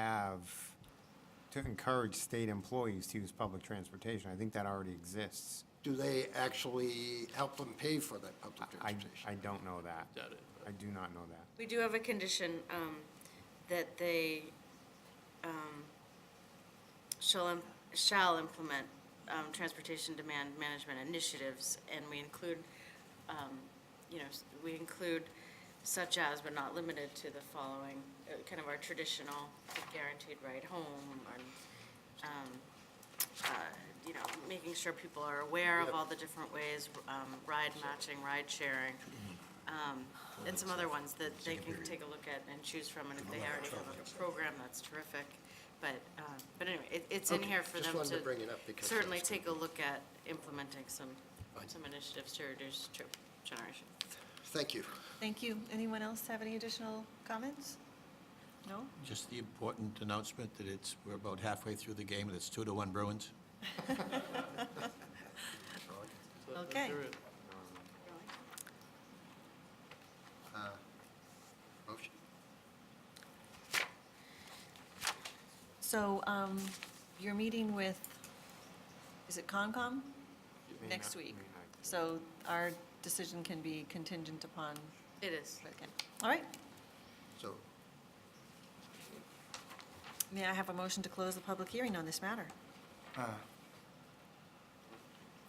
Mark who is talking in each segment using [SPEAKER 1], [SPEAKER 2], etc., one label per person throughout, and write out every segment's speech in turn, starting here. [SPEAKER 1] have, to encourage state employees to use public transportation. I think that already exists.
[SPEAKER 2] Do they actually help them pay for that public
[SPEAKER 1] I,
[SPEAKER 2] transportation?
[SPEAKER 1] I don't know that.
[SPEAKER 3] Got it.
[SPEAKER 1] I do not know that.
[SPEAKER 4] We do have a condition um, that they um, shall, im- shall implement um, transportation demand management initiatives, and we include, um, you know, s- we include such as, but not limited to the following, uh, kind of our traditional guaranteed ride home, and, um, uh, you know, making sure people are aware of all the different ways, um, ride matching, ride sharing,
[SPEAKER 2] Mm-hmm.
[SPEAKER 4] um, and some other ones that they can take a look at and choose from, and if they already have a program, that's terrific. But, um, but anyway, it, it's in
[SPEAKER 2] Okay,
[SPEAKER 4] here for
[SPEAKER 2] just
[SPEAKER 4] them
[SPEAKER 2] wanted to
[SPEAKER 4] to
[SPEAKER 2] bring it up because
[SPEAKER 4] certainly
[SPEAKER 2] that's
[SPEAKER 4] take a look at implementing some,
[SPEAKER 2] Fine.
[SPEAKER 4] some initiatives to reduce trip generation.
[SPEAKER 2] Thank you.
[SPEAKER 5] Thank you. Anyone else have any additional comments? No?
[SPEAKER 3] Just the important announcement that it's, we're about halfway through the game, and it's two to one Bruins.
[SPEAKER 5] Okay.
[SPEAKER 1] Uh,
[SPEAKER 2] Motion.
[SPEAKER 5] So um, you're meeting with, is it Concom? Next
[SPEAKER 1] not-
[SPEAKER 5] week.
[SPEAKER 1] may not.
[SPEAKER 5] So our decision can be contingent upon,
[SPEAKER 4] It is.
[SPEAKER 5] okay. All right.
[SPEAKER 2] So,
[SPEAKER 5] May I have a motion to close the public hearing on this matter?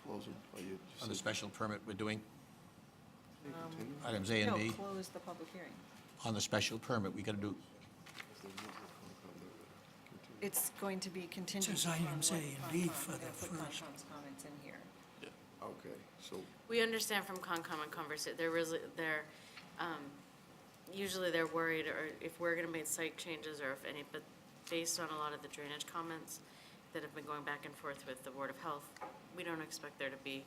[SPEAKER 6] Closing, or you
[SPEAKER 3] On the
[SPEAKER 6] just
[SPEAKER 3] special permit we're doing, items A and B,
[SPEAKER 5] No, close the public hearing.
[SPEAKER 3] on the special permit, we got to do,
[SPEAKER 5] It's going to be contingent
[SPEAKER 7] Says
[SPEAKER 5] upon
[SPEAKER 7] items
[SPEAKER 5] what
[SPEAKER 7] A and B
[SPEAKER 5] Concom-
[SPEAKER 7] for
[SPEAKER 5] they're
[SPEAKER 7] the
[SPEAKER 5] gonna put
[SPEAKER 7] first.
[SPEAKER 5] Concom's comments in here.
[SPEAKER 6] okay, so
[SPEAKER 4] We understand from Concom and Conversa, they're really, they're, um, usually they're worried or if we're gonna make site changes or if any, but based on a lot of the drainage comments that have been going back and forth with the Board of Health, we don't expect there to be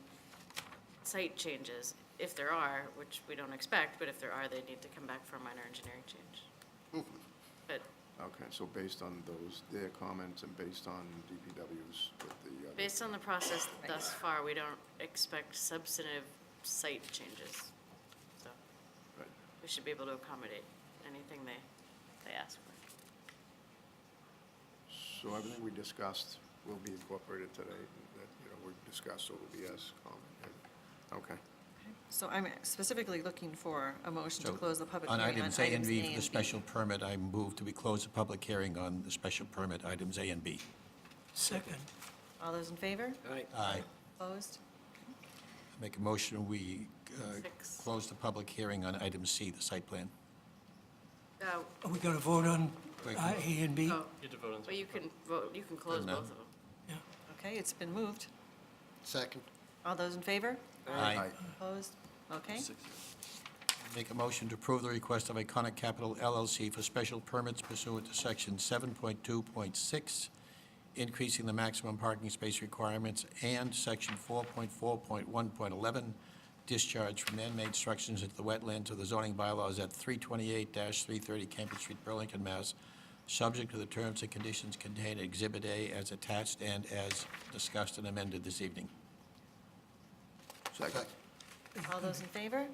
[SPEAKER 4] site changes. If there are, which we don't expect, but if there are, they need to come back for a minor engineering change. But
[SPEAKER 6] Okay, so based on those, their comments and based on DPW's with the. uh,
[SPEAKER 4] based on the process thus far, we don't expect substantive site changes, so.
[SPEAKER 6] right.
[SPEAKER 4] we should be able to accommodate anything they, they ask for.
[SPEAKER 6] So everything we discussed will be incorporated today, that, you know, we discussed, so it'll be as common. Okay,
[SPEAKER 5] So I'm specifically looking for a motion to
[SPEAKER 3] so.
[SPEAKER 5] close the public
[SPEAKER 3] On
[SPEAKER 5] hearing on
[SPEAKER 3] items A and B for
[SPEAKER 5] and
[SPEAKER 3] the special permit, I move to we close the public hearing on the special permit, items A and B.
[SPEAKER 7] Second,
[SPEAKER 5] All those in favor?
[SPEAKER 3] Aye.
[SPEAKER 5] Opposed?
[SPEAKER 3] Make a motion, we uh,
[SPEAKER 4] Six.
[SPEAKER 3] close the public hearing on item C, the site plan.
[SPEAKER 4] Uh,
[SPEAKER 7] are we going to vote on
[SPEAKER 3] Wait,
[SPEAKER 7] uh, A and B?
[SPEAKER 4] oh, well, you can vote, you can close
[SPEAKER 3] No.
[SPEAKER 4] both of them.
[SPEAKER 7] Yeah.
[SPEAKER 5] Okay, it's been moved.
[SPEAKER 2] second.
[SPEAKER 5] All those in favor?
[SPEAKER 3] Aye.
[SPEAKER 5] Opposed? Okay.
[SPEAKER 3] Make a motion to approve the request of Iconic Capital LLC for special permits pursuant to Section 7.2.6, increasing the maximum parking space requirements, and Section 4.4.1.11, discharge from man-made structures into the wetlands of the zoning bylaws at 328-330 Campbell Street, Burlington, Mass., subject to the terms and conditions contained in Exhibit A as attached and as discussed and amended this evening.
[SPEAKER 6] second.
[SPEAKER 5] All those in favor?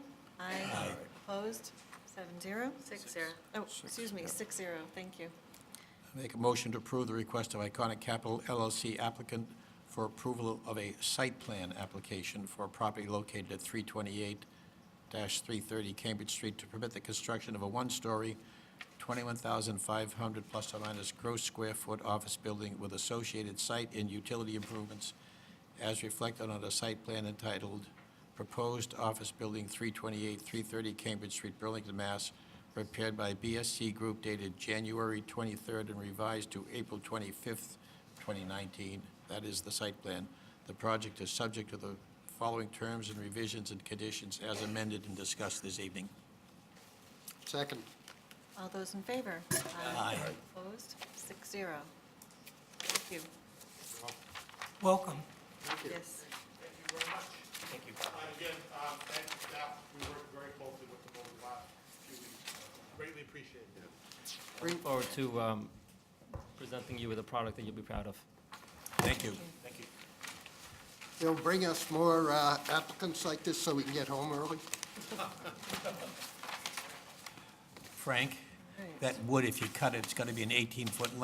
[SPEAKER 5] Aye. Opposed? Seven zero?
[SPEAKER 4] Six, zero.
[SPEAKER 5] Oh, excuse me, six zero, thank you.
[SPEAKER 3] Make a motion to approve the request of Iconic Capital LLC applicant for approval of a site plan application for a property located at 328-330 Cambridge Street to permit the construction of a one-story, 21,500 plus or minus gross square foot office building with associated site and utility improvements as reflected on a site plan entitled Proposed Office Building 328, 330 Cambridge Street, Burlington, Mass., prepared by BSC Group dated January 23rd and revised to April 25th, 2019. That is the site plan. The project is subject to the following terms and revisions and conditions as amended and discussed this evening.
[SPEAKER 2] Second.
[SPEAKER 5] All those in favor?
[SPEAKER 3] Aye.
[SPEAKER 5] Opposed? Six zero. Thank you.
[SPEAKER 7] Welcome.
[SPEAKER 5] Yes.
[SPEAKER 8] Uh, Again, um, thank you, staff. We worked very closely with them over the last few weeks. Greatly appreciated.
[SPEAKER 9] Looking forward to um, presenting you with a product that you'll be proud of.
[SPEAKER 3] Thank you.
[SPEAKER 2] They'll bring us more uh, applicants like this so we can get home early.
[SPEAKER 3] Frank?
[SPEAKER 5] Right.
[SPEAKER 3] That wood, if you cut it, it's gonna be an eighteen-foot